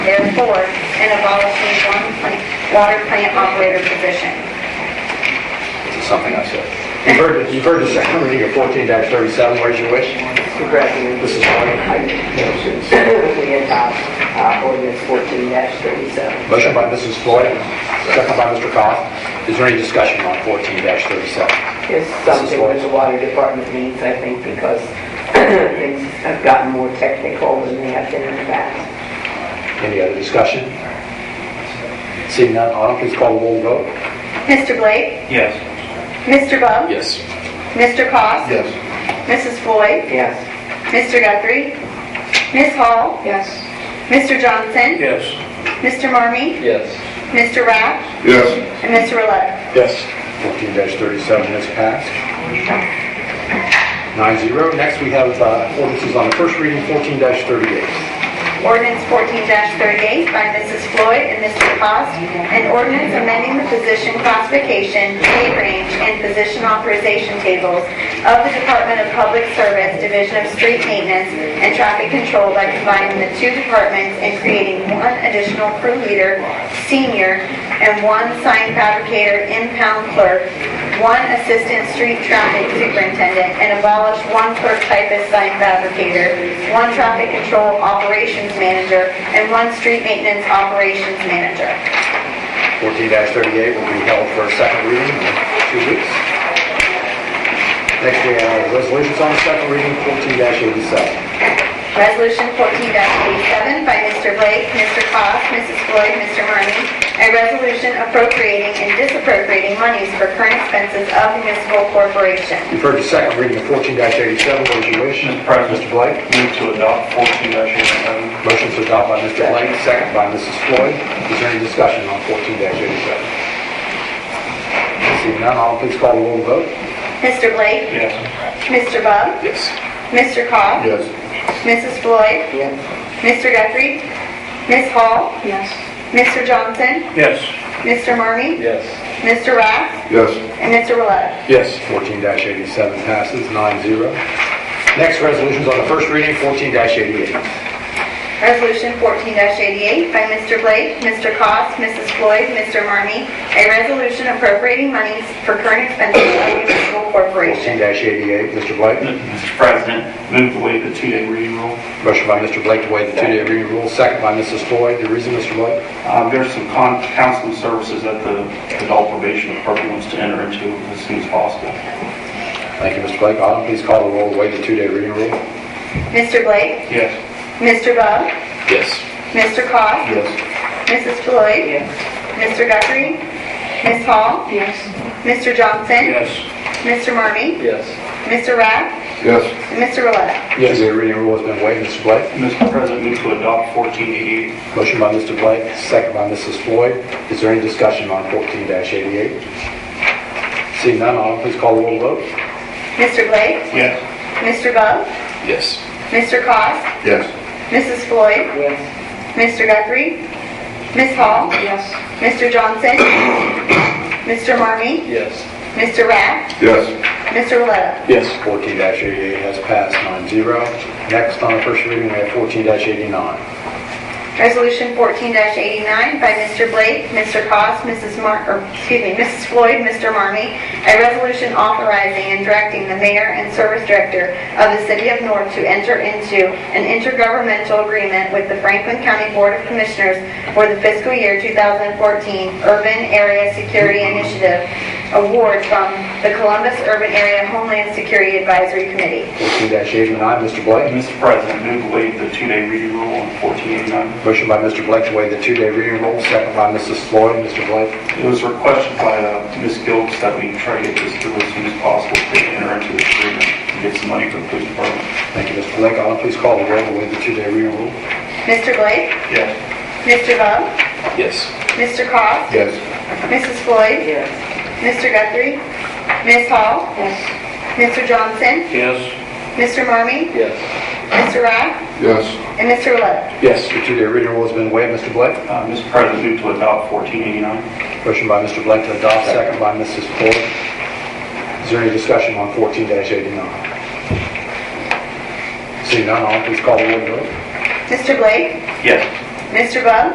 four and abolishing one plant- water plant operator position. It's something I said. You've heard, the- you've heard the second reading of fourteen thirty-seven, where's your wish? Congratulations. This is Marty. We adopt uh, ordinance 14-37. Motion by Mrs. Floyd, second by Mr. Goff. Is there any discussion on fourteen thirty-seven? It's something that the water department needs, I think, because things have gotten more technical than they have been in the past. Any other discussion? Seeing none, Autumn, please call the roll vote. Mr. Blake? Yes. Mr. Bub? Yes. Mr. Cost? Yes. Mrs. Floyd? Yes. Mr. Guthrie? Ms. Hall? Yes. Mr. Johnson? Yes. Mr. Marmee? Yes. Mr. Raff? Yes. And Mr. Roletta? Yes. Fourteen thirty-seven is passed. Nine zero. Next, we have uh, ordinances on the first reading, fourteen thirty-eight. Ordinance 14-38 by Mrs. Floyd and Mr. Cost, an ordinance amending the position classification, pay range, and position authorization tables of the Department of Public Service Division of Street Maintenance and Traffic Control by combining the two departments and creating one additional crew leader, senior, and one sign fabricator, impound clerk, one assistant street traffic superintendent, and abolish one clerk typist sign fabricator, one traffic control operations manager, and one street maintenance operations manager. Fourteen thirty-eight will be held for a second reading in two weeks. Next, we have resolutions on the second reading, fourteen eighty-seven. Resolution 14-87 by Mr. Blake, Mr. Cost, Mrs. Floyd, Mr. Marmy, a resolution appropriating and disappropriating monies for current expenses of municipal corporation. You've heard the second reading of fourteen eighty-seven. What is your wish? Mr. President. Mr. Blake? Move to adopt fourteen dash eighty-seven. Motion to adopt by Mr. Blake, second by Mrs. Floyd. Is there any discussion on fourteen eighty-seven? Seeing none, all please call the roll vote. Mr. Blake? Yes. Mr. Bub? Yes. Mr. Cobb? Yes. Mrs. Floyd? Yes. Mr. Guthrie? Ms. Hall? Yes. Mr. Johnson? Yes. Mr. Marmee? Yes. Mr. Raff? Yes. And Mr. Roletta? Yes. Fourteen eighty-seven passes nine zero. Next, resolutions on the first reading, fourteen eighty-eight. Resolution 14-88 by Mr. Blake, Mr. Cost, Mrs. Floyd, Mr. Marmee, a resolution appropriating monies for current expenses of municipal corporation. Fourteen eighty-eight, Mr. Blake. Mr. President, move to waive the two-day reading rule. Motion by Mr. Blake to waive the two-day reading rule, second by Mrs. Floyd. The reason, Mr. Blake? Uh, There's some con- counseling services that the adult probation department wants to enter into as soon as possible. Thank you, Mr. Blake. Autumn, please call the roll, waive the two-day reading rule. Mr. Blake? Yes. Mr. Bub? Yes. Mr. Cost? Yes. Mrs. Floyd? Yes. Mr. Guthrie? Ms. Hall? Yes. Mr. Johnson? Yes. Mr. Marmee? Yes. Mr. Raff? Yes. And Mr. Roletta? Yes. The reading rule has been waived, Mr. Blake. Mr. President, move to adopt fourteen eighty-eight. Motion by Mr. Blake, second by Mrs. Floyd. Is there any discussion on 14-88? Seeing none, Autumn, please call the roll vote. Mr. Blake? Yes. Mr. Bub? Yes. Mr. Cost? Yes. Mrs. Floyd? Yes. Mr. Guthrie? Ms. Hall? Yes. Mr. Johnson? Mr. Marmee? Yes. Mr. Raff? Yes. Mr. Roletta? Yes. 14-88 has passed, 9-0. Next on the first reading, we have 14-89. Resolution 14-89 by Mr. Blake, Mr. Cost, Mrs. Mar, or, excuse me, Mrs. Floyd, Mr. Marmee, a resolution authorizing and directing the mayor and service director of the city of North to enter into an intergovernmental agreement with the Franklin County Board of Commissioners for the fiscal year 2014 Urban Area Security Initiative Award from the Columbus Urban Area Homeland Security Advisory Committee. 14-89, Mr. Blake. Uh, Mr. President, move to waive the two-day reading rule on fourteen eighty-nine. Motion by Mr. Blake to waive the two-day reading rule, second by Mrs. Floyd. Mr. Blake? It was requested by uh, Ms. Gilbs that we try to get this through as soon as possible to enter into this agreement and get some money for the police department. Thank you, Mr. Blake. Autumn, please call the roll to waive the two-day reading rule. Mr. Blake? Yes. Mr. Bub? Yes. Mr. Cost? Yes. Mrs. Floyd? Yes. Mr. Guthrie? Ms. Hall? Yes. Mr. Johnson? Yes. Mr. Marmee? Yes. Mr. Raff? Yes. And Mr. Roletta? Yes. The two-day reading rule has been waived, Mr. Blake. Uh, Mr. President, move to adopt 1489. Motion by Mr. Blake to adopt, second by Mrs. Ford. Is there any discussion on 14-89? Seeing none, all please call the roll vote. Mr. Blake? Yes. Mr. Bub?